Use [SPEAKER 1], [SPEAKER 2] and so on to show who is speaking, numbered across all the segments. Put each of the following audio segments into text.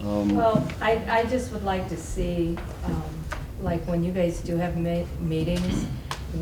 [SPEAKER 1] Um,
[SPEAKER 2] Well, I, I just would like to see, um, like, when you guys do have ma- meetings,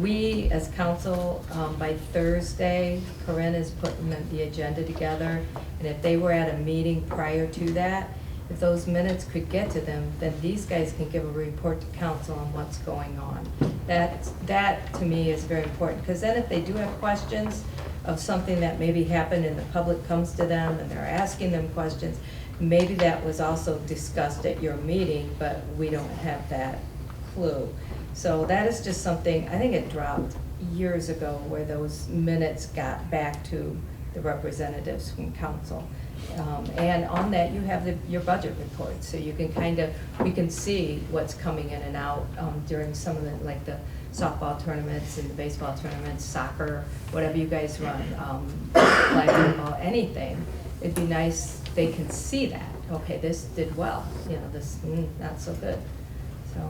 [SPEAKER 2] we as council, um, by Thursday, Corinne is putting the- the agenda together, and if they were at a meeting prior to that, if those minutes could get to them, then these guys can give a report to council on what's going on. That, that to me is very important, because then if they do have questions of something that maybe happened and the public comes to them and they're asking them questions, Maybe that was also discussed at your meeting, but we don't have that clue. So that is just something, I think it dropped years ago where those minutes got back to the representatives from council. Um, And on that, you have the- your budget report, so you can kind of, we can see what's coming in and out um, during some of the, like the softball tournaments and the baseball tournaments, soccer, whatever you guys run, um, flag football, anything. It'd be nice, they can see that, okay, this did well, you know, this, mm, not so good. So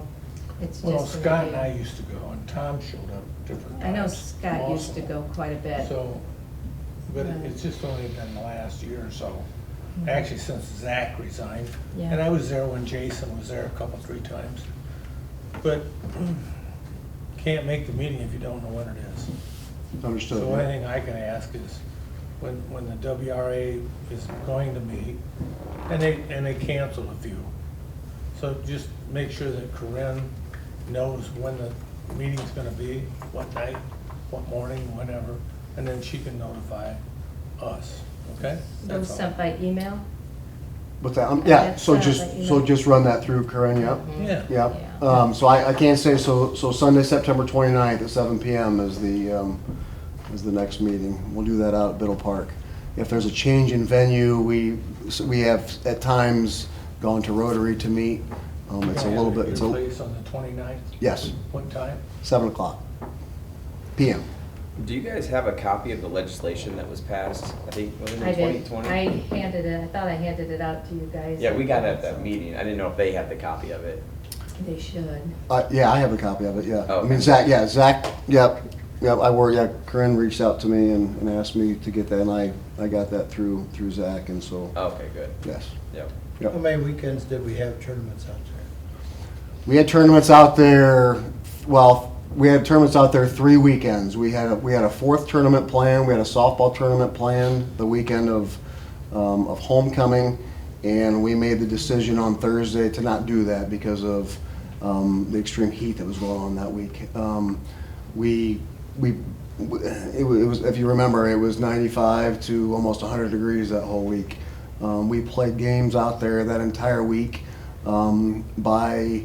[SPEAKER 2] it's just.
[SPEAKER 3] Well,
[SPEAKER 2] an
[SPEAKER 3] Scott and I
[SPEAKER 2] idea.
[SPEAKER 3] used to go, and Tom showed up different times.
[SPEAKER 2] I know Scott used to
[SPEAKER 3] also.
[SPEAKER 2] go quite a bit.
[SPEAKER 3] So, but
[SPEAKER 2] Right.
[SPEAKER 3] it- it's just only been the last year or so,
[SPEAKER 2] Mhm.
[SPEAKER 3] actually since Zach resigned.
[SPEAKER 2] Yeah.
[SPEAKER 3] And I was there when Jason was there a couple, three times. But can't make the meeting if you don't know what it is.
[SPEAKER 1] Understood.
[SPEAKER 3] So one thing I can ask is, when, when the WRA is going to meet, and they, and they canceled a few. So just make sure that Corinne knows when the meeting's gonna be, what night, what morning, whenever, and then she can notify us, okay?
[SPEAKER 2] Those
[SPEAKER 3] That's all.
[SPEAKER 2] sent by email?
[SPEAKER 1] What's that? Um, yeah,
[SPEAKER 2] That's
[SPEAKER 1] so
[SPEAKER 2] not
[SPEAKER 1] just,
[SPEAKER 2] like, you
[SPEAKER 1] so
[SPEAKER 2] know.
[SPEAKER 1] just run that through, Karen,
[SPEAKER 4] Oh,
[SPEAKER 1] yep.
[SPEAKER 2] Mhm.
[SPEAKER 3] Yeah.
[SPEAKER 1] Yep.
[SPEAKER 2] Yeah.
[SPEAKER 1] Um, so I, I can't say, so, so Sunday, September 29th at seven PM is the, um, is the next meeting. We'll do that out at Biddle Park. If there's a change in venue, we, so we have at times gone to Rotary to meet. Um, it's a little bit, it's
[SPEAKER 3] Your
[SPEAKER 1] a,
[SPEAKER 3] place on the 29th?
[SPEAKER 1] yes,
[SPEAKER 3] What time?
[SPEAKER 1] seven o'clock PM.
[SPEAKER 4] Do you guys have a copy of the legislation that was passed? I think, was it
[SPEAKER 2] I
[SPEAKER 4] in twenty
[SPEAKER 2] did,
[SPEAKER 4] twenty?
[SPEAKER 2] I handed it, I thought I handed it out to you guys.
[SPEAKER 4] Yeah, we got it at that meeting. I didn't know if they had the copy of it.
[SPEAKER 2] They should.
[SPEAKER 1] Uh, yeah, I have a copy of it, yeah. I
[SPEAKER 4] Okay.
[SPEAKER 1] mean, Zach, yeah, Zach, yep, yep, I wore, yeah, Corinne reached out to me and, and asked me to get that, and I, I got that through, through Zach, and so,
[SPEAKER 4] Okay, good.
[SPEAKER 1] yes.
[SPEAKER 4] Yep.
[SPEAKER 1] Yep.
[SPEAKER 5] How many weekends did we have tournaments out there?
[SPEAKER 1] We had tournaments out there, well, we had tournaments out there three weekends. We had, a we had a fourth tournament planned, we had a softball tournament planned the weekend of, um, of homecoming. And we made the decision on Thursday to not do that because of, um, the extreme heat that was going on that week. Um, we, we, it wa- it was, if you remember, it was ninety-five to almost hundred degrees that whole week. Um, we played games out there that entire week. Um, by,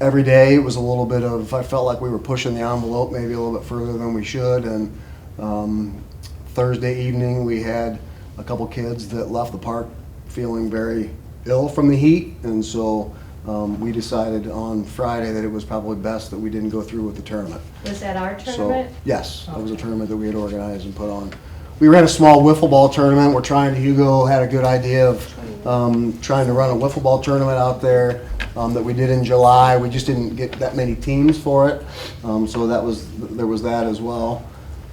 [SPEAKER 1] every day it was a little bit of i felt like we were pushing the envelope maybe a little bit further than we should and um, thursday evening we had a couple kids that left the park feeling very ill from the heat and so um, we decided on friday that it was probably best that we didn't go through with the tournament
[SPEAKER 2] Was that our
[SPEAKER 1] So-
[SPEAKER 2] tournament?
[SPEAKER 1] yes that was a
[SPEAKER 2] Okay.
[SPEAKER 1] tournament that we had organized and put on we ran a small wiffle ball tournament we're trying hugo had a good idea of um, trying to run a wiffle ball tournament out there um, that we did in july we just didn't get that many teams for it um, so that was there was that as well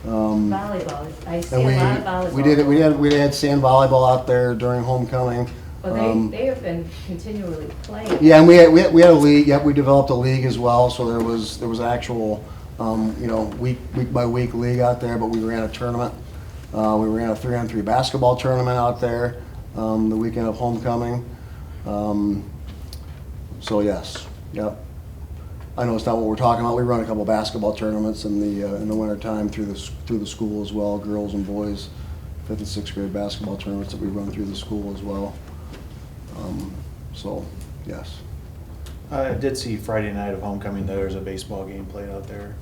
[SPEAKER 1] um,
[SPEAKER 2] Volleyball, I see a
[SPEAKER 1] and we
[SPEAKER 2] lot of volleyball.
[SPEAKER 1] we did it we had we had sand volleyball out there during homecoming
[SPEAKER 2] Well,
[SPEAKER 1] Um,
[SPEAKER 2] they, they have been continually playing.
[SPEAKER 1] yeah, and we had, we had, we had a league, yep, we developed a league as well, so there was, there was actual, um, you know, week, week by week league out there, but we ran a tournament. Uh, we ran a three-on-three basketball tournament out there, um, the weekend of homecoming. Um, so yes, yep. I know it's not what we're talking about, we run a couple basketball tournaments in the, uh, in the wintertime through the, s- through the school as well, girls and boys, fifth and sixth grade basketball tournaments that we run through the school as well. Um, So, yes.
[SPEAKER 6] I did see Friday night of homecoming, though, there's a baseball game played out there.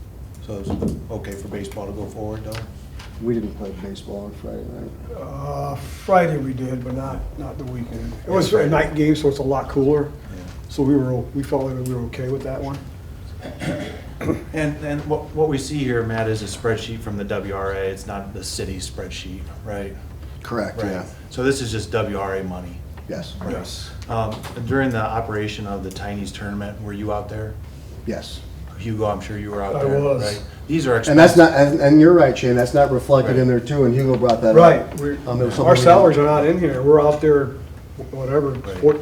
[SPEAKER 6] So it's okay for baseball to go forward, though?
[SPEAKER 1] We didn't play baseball on Friday night.
[SPEAKER 7] Uh, Friday we did, but not, not the weekend. It was a night game, so it's a lot cooler, so we were, o- we felt like we were okay with that one.
[SPEAKER 6] And, and what, what we see here, Matt, is a spreadsheet from the WRA. It's not the city spreadsheet, right?
[SPEAKER 1] Correct,
[SPEAKER 6] Right.
[SPEAKER 1] yeah.
[SPEAKER 6] So this is just WRA money.
[SPEAKER 1] Yes,
[SPEAKER 6] Yes. During the operation of the Tiny's tournament, were you out there?
[SPEAKER 1] yes.
[SPEAKER 6] Hugo, I'm sure you were out
[SPEAKER 7] I
[SPEAKER 6] there,
[SPEAKER 7] was.
[SPEAKER 6] right? These are
[SPEAKER 1] And that's
[SPEAKER 6] expensive.
[SPEAKER 1] not, and, and you're right, Shane, that's not reflected in there too, and Hugo brought that up.
[SPEAKER 7] Right, we-
[SPEAKER 1] Um, there was something
[SPEAKER 7] our
[SPEAKER 1] we-
[SPEAKER 7] salaries are not in here, we're out there, whatever,
[SPEAKER 6] Right.
[SPEAKER 7] four-